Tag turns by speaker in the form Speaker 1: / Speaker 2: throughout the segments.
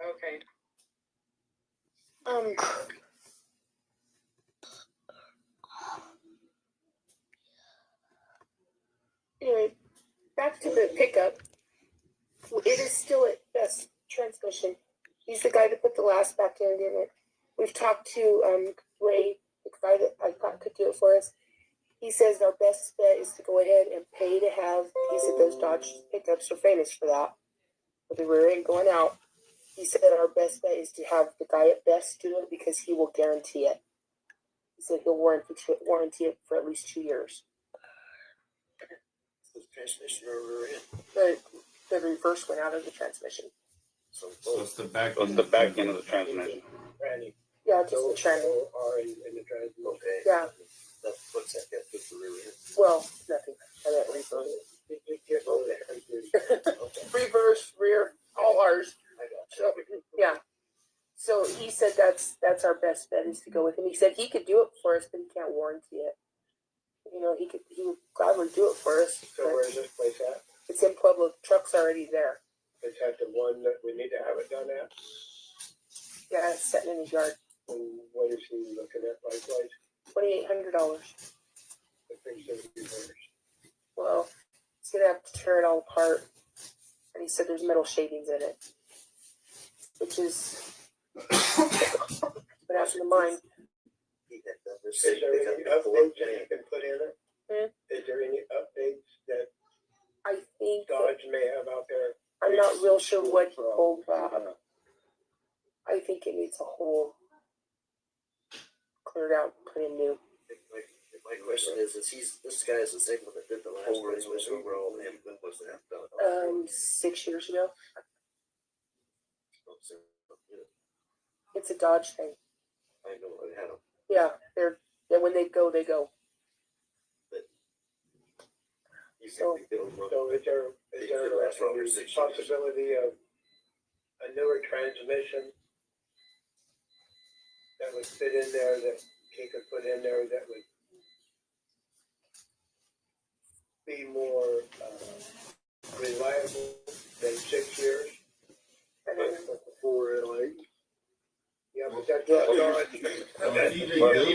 Speaker 1: Okay.
Speaker 2: Um, anyway, back to the pickup. It is still at best transmission. He's the guy that put the last back end in it. We've talked to um, Ray, the guy that I thought could do it for us. He says our best bet is to go ahead and pay to have. He said those Dodge pickups are famous for that, with the rear end going out. He said our best bet is to have the guy at Best do it because he will guarantee it. He said he'll warranty warranty it for at least two years.
Speaker 3: The transmission or rear end.
Speaker 2: the the reverse went out of the transmission.
Speaker 3: So
Speaker 4: So
Speaker 3: both
Speaker 4: it's the back.
Speaker 5: That's the back end of the transmission.
Speaker 3: Randy.
Speaker 2: Yeah, just the trend.
Speaker 3: Are in, in the transmission. Okay.
Speaker 2: Yeah.
Speaker 3: That puts that, that puts the rear end.
Speaker 2: Well, nothing. I meant reverse.
Speaker 3: You- you can't go there. Okay,
Speaker 2: Reverse, rear, all ours.
Speaker 3: I got
Speaker 2: So yeah. So he said that's that's our best bet is to go with him. He said he could do it for us, but he can't warranty it. You know, he could he would gladly do it for us.
Speaker 3: you. So
Speaker 2: But
Speaker 3: where's this place at?
Speaker 2: it's in Pueblo. Truck's already there.
Speaker 3: Is that the one that we need to have it done at?
Speaker 2: Yeah, it's sitting in his yard.
Speaker 3: And what is he looking at likewise?
Speaker 2: Twenty eight hundred dollars.
Speaker 3: The things that we reversed.
Speaker 2: Well, he's gonna have to tear it all apart. And he said there's metal shavings in it, which is. but after the mine,
Speaker 3: Is there any updates that you can put in it?
Speaker 2: Hmm?
Speaker 3: Is there any updates that
Speaker 2: I think that-
Speaker 3: Dodge may have out there?
Speaker 2: I'm not real sure what he pulled
Speaker 3: Uh-huh.
Speaker 2: Rob. I think it needs a whole cleared out, put in new.
Speaker 6: My, my question is, is he's, this guy is the same one that did the last transmission overall, and when was that done?
Speaker 2: Um, six years ago, it's a Dodge thing.
Speaker 6: I know, I had him,
Speaker 2: Yeah, they're yeah when they go, they go.
Speaker 6: you
Speaker 2: So-
Speaker 6: can think it'll run.
Speaker 3: So is there, is there
Speaker 6: It lasts over
Speaker 3: a
Speaker 6: six years.
Speaker 3: possibility of a newer transmission? That would fit in there, that he could put in there, that would be more, uh, reliable than six years?
Speaker 2: And then
Speaker 3: Four, like. Yeah, but that's.
Speaker 5: Well,
Speaker 4: Well, if he
Speaker 5: But if he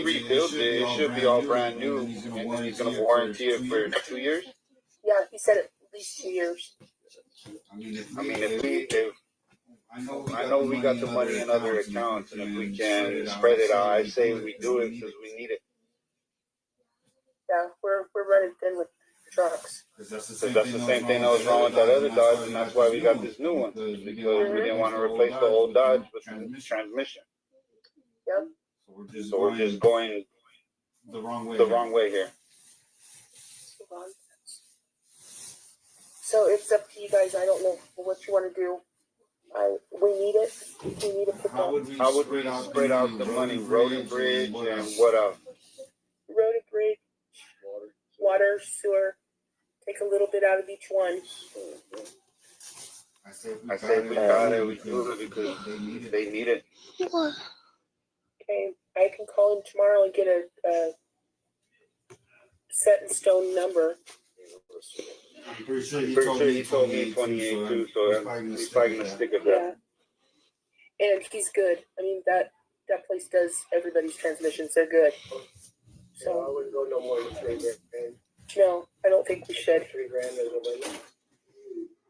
Speaker 5: rebuilds
Speaker 4: rebuilds
Speaker 5: it, it should be all brand new,
Speaker 4: and
Speaker 5: and then
Speaker 4: then
Speaker 5: he's gonna warranty it for two years?
Speaker 2: yeah, he said at least two years.
Speaker 4: I mean, if
Speaker 5: I mean, if we, if, I know we got the money in other accounts, and if we can spread it out, I say we do it, cause we need it,
Speaker 2: Yeah, we're we're running thin with trucks.
Speaker 4: Cause
Speaker 5: cause that's the same thing that was wrong with that other Dodge, and that's why we got this new one,
Speaker 4: because
Speaker 5: because we didn't wanna replace the old Dodge with the transmission. So we're just going
Speaker 4: the wrong way.
Speaker 5: the wrong way here.
Speaker 2: Hold on. So it's up to you guys. I don't know what you want to do. I we need it. We need to put
Speaker 4: How
Speaker 2: down
Speaker 4: would we
Speaker 5: How would we spread out the money, road and bridge, and what else?
Speaker 2: road and bridge, water, sewer. Take a little bit out of each one.
Speaker 4: I say
Speaker 5: I say we got it, we do it, because
Speaker 4: They need it.
Speaker 5: they need it.
Speaker 2: Okay, I can call him tomorrow and get a, a set in stone number.
Speaker 4: I'm pretty sure he
Speaker 5: Pretty
Speaker 4: told
Speaker 5: sure
Speaker 4: me
Speaker 5: he told me
Speaker 4: 28
Speaker 5: twenty-eight too, so I'm- he's probably gonna stick with that.
Speaker 2: and he's good. I mean that that place does everybody's transmissions. They're good.
Speaker 3: So I wouldn't go no more than three grand,
Speaker 2: No, I don't think we should.
Speaker 3: three grand is a limit.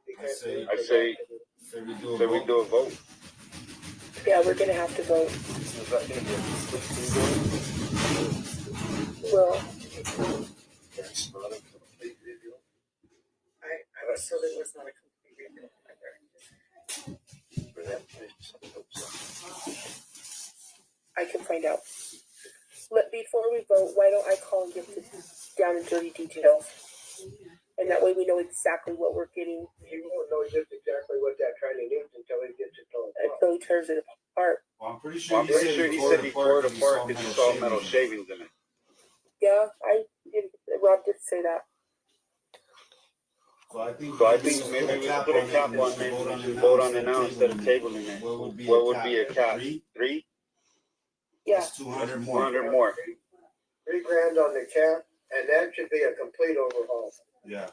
Speaker 3: You
Speaker 4: I
Speaker 3: can't
Speaker 4: say-
Speaker 3: do it
Speaker 5: I
Speaker 3: for
Speaker 5: say-
Speaker 3: that.
Speaker 4: Say we do
Speaker 5: So we do a vote.
Speaker 2: Yeah, we're gonna have to vote.
Speaker 6: Is that gonna be a sixteen grand?
Speaker 2: Well.
Speaker 6: That's not a complete review.
Speaker 1: I, I was told it was not a complete rebuild either.
Speaker 6: For that price, I hope so.
Speaker 2: I can find out. Let, before we vote, why don't I call and get the down and dirty details? And that way we know exactly what we're getting
Speaker 3: He won't know just exactly what that training is until he gets it done.
Speaker 2: until he tears it apart.
Speaker 4: Well, I'm pretty sure
Speaker 5: Well, I'm
Speaker 4: he
Speaker 5: pretty
Speaker 4: said
Speaker 5: sure he said he tore it apart
Speaker 4: because
Speaker 5: because it's all metal shavings in it.
Speaker 2: Yeah, I, did Rob did say that.
Speaker 4: So I think,
Speaker 5: So I think maybe we should put a cap on
Speaker 4: it,
Speaker 5: it, we should vote on it now instead of tabling it.
Speaker 4: What would be
Speaker 5: What would be a cap?
Speaker 4: Three?
Speaker 5: Three,
Speaker 2: Yeah,
Speaker 4: That's 200
Speaker 5: one
Speaker 4: more.
Speaker 5: hundred more.
Speaker 3: Three grand on the cap, and that should be a complete overhaul.
Speaker 4: Yeah.